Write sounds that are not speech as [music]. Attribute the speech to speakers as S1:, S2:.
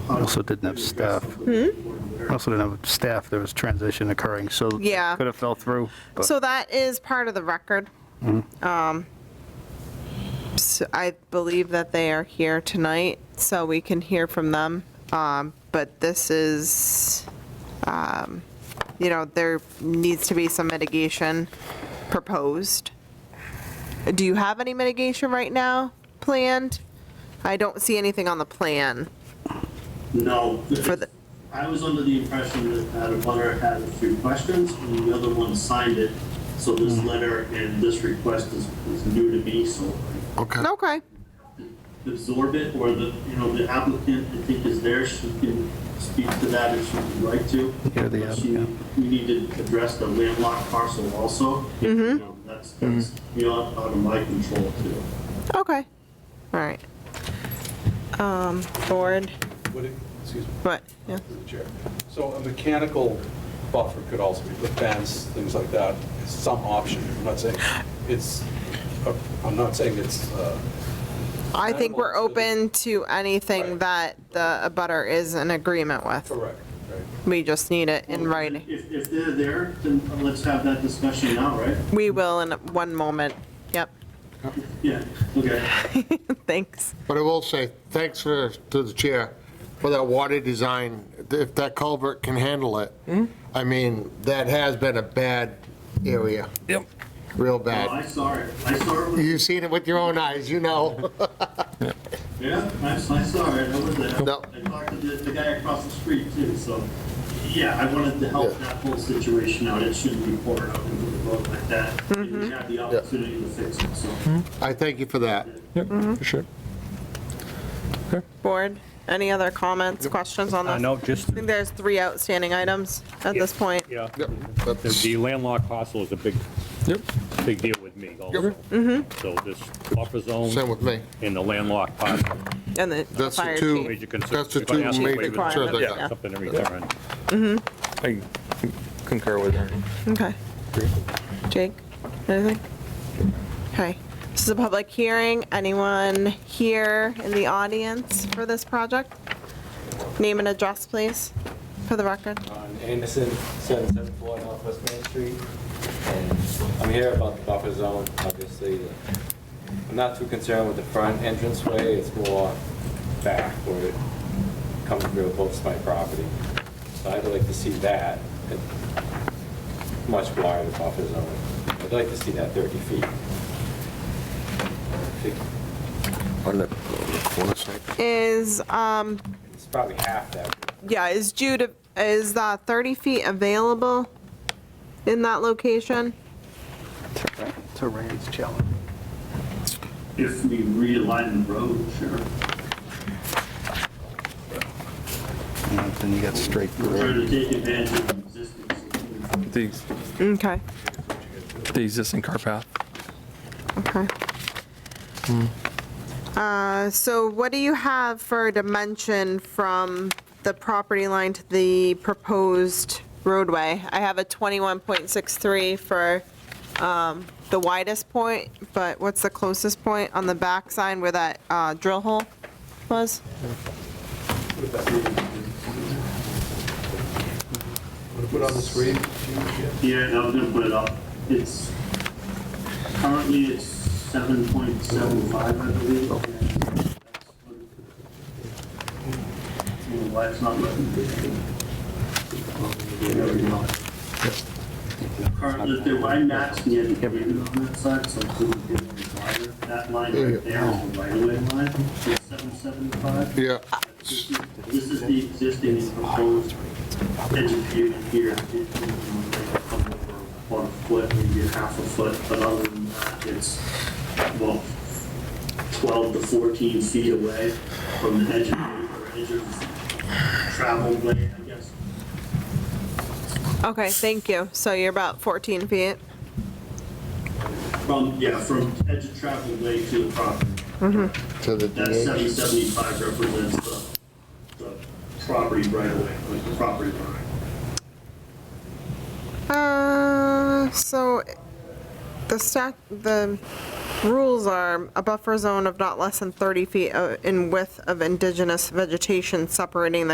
S1: Hmm?
S2: also didn't have staff. Also didn't have staff, there was transition occurring, so. it
S1: Yeah.
S2: Could have fell through. but-
S1: So that is part of the record. Um, so I believe that they are here tonight, so we can hear from them. Um, But this is, um, you know, there needs to be some mitigation proposed. Do you have any mitigation right now planned? I don't see anything on the plan
S3: No,
S1: for the,
S3: I was under the impression that that a butter had a few questions and the other one signed it. So this letter and this request is, is new to me, so
S4: Okay.
S1: okay,
S3: I absorb it or the, you know, the applicant, I think is there, she can speak to that if she would like to.
S2: Yeah, the
S3: But she-
S2: applicant.
S3: We need to address the landlocked parcel also. Mm-hmm. That's, that's beyond, out of my control too.
S1: okay, all right. Um, Board,
S5: Would it, excuse me,
S1: but, yeah.
S5: through the chair. So a mechanical buffer could also be the fence, things like that, is some option. I'm not saying it's, uh, I'm not saying it's, uh,
S1: I think we're
S5: Amenable to-
S1: open to anything
S5: Right.
S1: that the abutter is in agreement with.
S5: correct, right?
S1: We just need it in
S3: Well,
S1: writing.
S3: If, if they're there, then let's have that discussion now, right?
S1: We will in one moment. [laughs] Yep,
S3: Yeah, okay.
S1: thanks.
S4: But I will say, thanks for, to the chair, for that water design, if that culvert can handle it. I mean, that has been a bad area. Yep. Real
S3: Oh, I
S4: bad.
S3: saw it. I saw it. with-
S4: You've seen it with your own eyes, you know.
S3: Yeah, I, I saw it. I was there.
S4: No.
S3: I talked to the, the guy across the street too, so, yeah, I wanted to help
S4: Yeah.
S3: that whole situation out. It shouldn't be poured out into the road like that. And we had the opportunity to fix it, so.
S4: I thank you for that.
S6: Yep, for sure.
S1: Board, any other comments, questions on
S7: Uh,
S1: this?
S7: No, just,
S1: I think there's three outstanding items at this point.
S7: yeah,
S4: Yep,
S7: the-
S4: that's-
S7: the landlocked parcel is a big,
S6: Yep.
S7: big deal with me also. So this buffer
S4: Same
S7: zone
S4: with me.
S7: and the landlocked parcel,
S1: And the
S4: That's the
S1: fire
S4: two.
S1: chief.
S7: major concern.
S4: That's the
S7: If I
S4: two
S7: ask to
S1: Chief
S4: major
S7: waive it,
S1: requirement,
S4: concerns I
S1: yeah.
S4: got.
S7: Something in return.
S6: I concur with her.
S1: Okay. Jake, anything? Okay, this is a public hearing. Anyone here in the audience for this project? Name and address, please, for the record.
S8: on Anderson, 774 Northwest Main Street. And I'm here about the buffer zone, obviously. the- I'm not too concerned with the front entrance way. it's more back where it comes real close to my property. So I'd like to see that, a much wider buffer zone. I'd like to see that 30 feet. I think
S4: On the corner side.
S1: Is, um,
S8: It's probably half that.
S1: yeah, is Jude, is uh 30 feet available in that location?
S2: Terrain's challenging.
S3: If we realign the road, sure.
S2: Then you got straight
S3: We're
S2: grade.
S3: trying to take advantage of the existing. situation.
S6: The,
S1: Okay,
S6: the existing car path.
S1: okay. Uh, so what do you have for a dimension from the property line to the proposed roadway? I have a 21.63 for, um, the widest point, but what's the closest point on the back sign where that, uh, drill hole was?
S5: Put on the screen,
S3: Yeah, I was gonna put it up. It's, currently it's 7.75, I believe.
S5: Oh.
S3: Why it's not letting me. There we go. Currently, if they're, I matched the end of on that side, so it couldn't get any wider. That line right there is the right-of-way line, it's 775.
S4: Yeah,
S3: This is- this is the existing and proposed edge of pavement here. One foot, maybe a half a foot, but other than that, it's, well, 12 to 14 feet away from the edge of, or edge of travel way, I guess.
S1: Okay, thank you. So you're about 14 feet.
S3: From, yeah, from edge of travel way to the property.
S4: to the
S3: That
S4: DH.
S3: 775 represents the, the property right away, like the property line.
S1: Uh, so the stack, the rules are a buffer zone of not less than 30 feet uh, in width of indigenous vegetation separating the